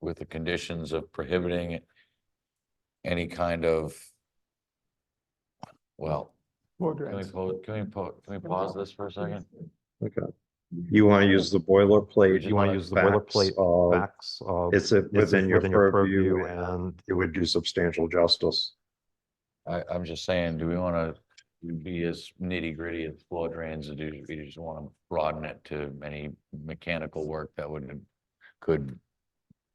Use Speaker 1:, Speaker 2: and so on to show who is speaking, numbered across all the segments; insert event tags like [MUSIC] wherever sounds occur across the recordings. Speaker 1: with the conditions of prohibiting any kind of, well, can we, po- can we, po- can we pause this for a second?
Speaker 2: Okay. You want to use the boilerplate.
Speaker 3: You wanna use the
Speaker 2: facts
Speaker 3: boilerplate
Speaker 2: of-
Speaker 3: Facts of.
Speaker 2: It's it-
Speaker 3: it's
Speaker 2: within your purview and it would do substantial justice.
Speaker 1: I, I'm just saying, do we want to be as nitty gritty as floor drains, or do we just want to broaden it to any mechanical work that would, could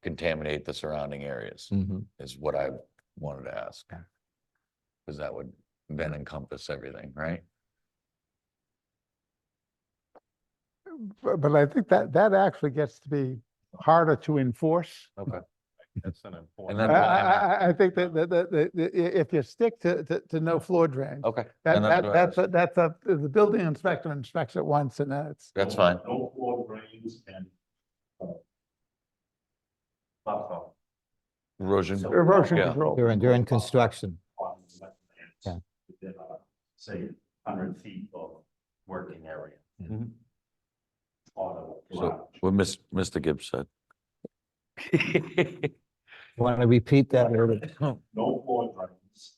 Speaker 1: contaminate the surrounding areas,
Speaker 2: Mm-hmm.
Speaker 3: Mhm.
Speaker 1: is what I wanted to ask.
Speaker 3: Yeah.
Speaker 1: Because that would then encompass everything, right?
Speaker 4: But, but I think that, that actually gets to be harder to enforce.
Speaker 1: Okay.
Speaker 5: That's an important.
Speaker 4: I,
Speaker 1: then-
Speaker 4: I, I- I think that, that, that, that- that i- if you stick to, to, to no floor drain,
Speaker 1: Okay.
Speaker 4: that,
Speaker 1: Oh, then
Speaker 4: that,
Speaker 1: what I
Speaker 4: that's,
Speaker 1: was-
Speaker 4: a- that's a, the building inspector inspects it once and that's,
Speaker 1: That's fine.
Speaker 5: No floor drains and. uh, buffer
Speaker 1: Erosion.
Speaker 5: So-
Speaker 4: erosion
Speaker 1: Yeah.
Speaker 4: control.
Speaker 6: During, during construction.
Speaker 5: on the wetlands
Speaker 6: Yeah.
Speaker 5: Within, uh, say, hundred feet of working area.
Speaker 1: Mhm.
Speaker 5: Auto.
Speaker 1: So what Miss, Mr. Gibbs said.
Speaker 6: Want to repeat that? or-
Speaker 5: no floor drains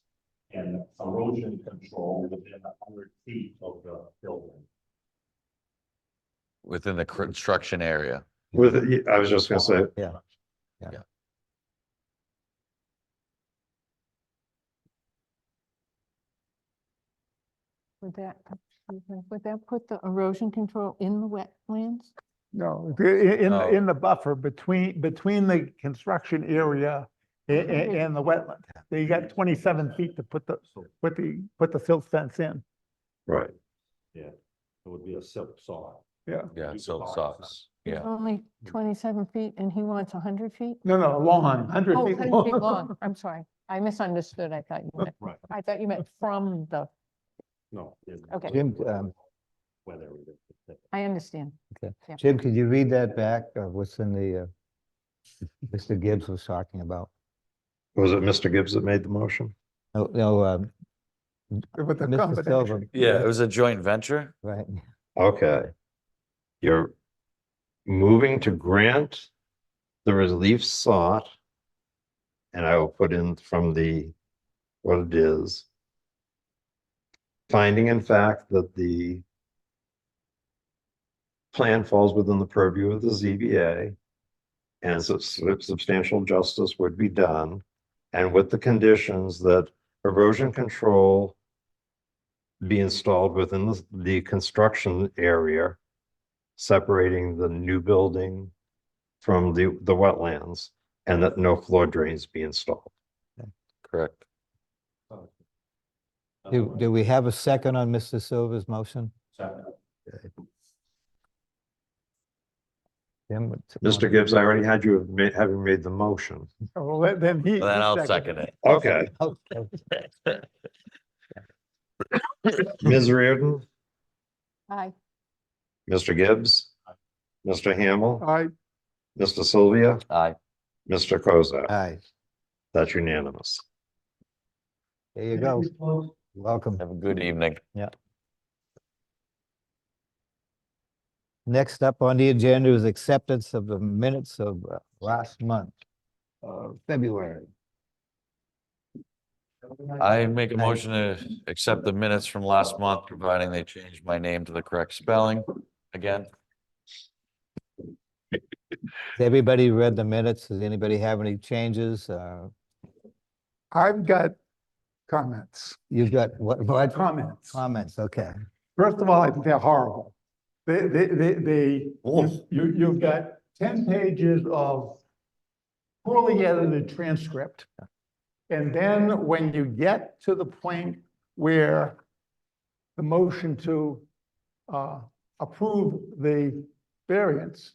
Speaker 5: and erosion control within a hundred feet of the building.
Speaker 1: Within the construction area.
Speaker 2: With, I was just gonna say,
Speaker 7: Would that, excuse me, would that put the erosion control in the wetlands?
Speaker 4: No, i- i- in,
Speaker 1: No.
Speaker 4: the- in the buffer between, between the construction area a- a- and the wetland. You got twenty-seven feet to put the, put the, put the silt fence in.
Speaker 2: right,
Speaker 5: It would be a silk saw.
Speaker 1: Yeah,
Speaker 5: You
Speaker 1: so
Speaker 5: could box
Speaker 1: socks. Yeah.
Speaker 7: Only twenty-seven feet and he wants hundred feet?
Speaker 4: No, no, long, hundred
Speaker 7: Oh,
Speaker 4: feet
Speaker 7: 100 feet
Speaker 4: long.
Speaker 7: long, I'm sorry. I misunderstood. I thought you meant,
Speaker 5: Right,
Speaker 7: I thought you meant from the,
Speaker 5: no. it-
Speaker 7: Okay.
Speaker 6: Jim, um,
Speaker 5: Whether it is.
Speaker 7: I understand.
Speaker 6: Jim, could you read that back, uh, what's in the, uh, Mr. Gibbs was talking about?
Speaker 2: was it Mr. Gibbs that made the motion?
Speaker 6: No, no, um,
Speaker 4: [LAUGHS] With the
Speaker 6: Mr.
Speaker 4: combination.
Speaker 6: Silver.
Speaker 1: Yeah, it was a joint venture.
Speaker 6: Right,
Speaker 2: Okay. You're moving to grant the relief sought. And I will put in from the, what it is. Finding in fact that the plan falls within the purview of the ZBA. And sub- sub- substantial justice would be done. And with the conditions that erosion control be installed within the, the construction area, separating the new building from the, the wetlands, and that no floor drains be installed.
Speaker 1: Correct.
Speaker 6: do, do we have a second on Mr. Silver's motion? Jim, what's-
Speaker 2: Mr. Gibbs, I already had you have ma- having made the motion.
Speaker 4: Well, then- then he.
Speaker 1: Then
Speaker 4: he
Speaker 1: I'll
Speaker 4: seconded
Speaker 1: second it.
Speaker 2: Okay,
Speaker 6: Okay.
Speaker 2: Ms. Reardon,
Speaker 7: Aye.
Speaker 2: Mr. Gibbs, Mr. Hamel,
Speaker 4: I,
Speaker 2: Mr. Sylvia,
Speaker 1: Aye.
Speaker 2: Mr. Kozak.
Speaker 6: Aye,
Speaker 2: That's unanimous.
Speaker 6: there you go, welcome.
Speaker 1: Have a good evening.
Speaker 6: Next up on the agenda is acceptance of the minutes of uh, last month, uh, February.
Speaker 1: I make a
Speaker 6: Aye.
Speaker 1: motion to accept the minutes from last month, providing they change my name to the correct spelling again.
Speaker 6: Has Everybody read the minutes, does anybody have any changes, uh,
Speaker 4: I've got comments.
Speaker 6: you've got, what, what?
Speaker 4: Comments.
Speaker 6: Comments, okay.
Speaker 4: First of all, I think they're horrible. They, they, they, they, you, you've got ten pages of poorly edited transcript. And then when you get to the point where the motion to, uh, approve the variance,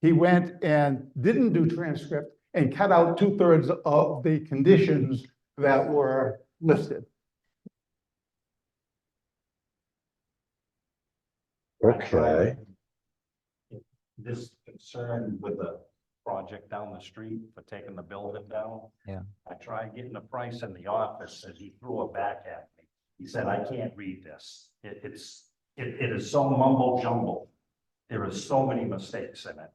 Speaker 4: he went and didn't do transcript and cut out two-thirds of the conditions that were listed.
Speaker 2: Okay,
Speaker 5: This concern with the project down the street for taking the building down.
Speaker 6: Yeah.
Speaker 5: I tried getting a price in the office and he threw it back at me. He said, I can't read this. It, it's, it, it is so mumble jumble. There is so many mistakes in it.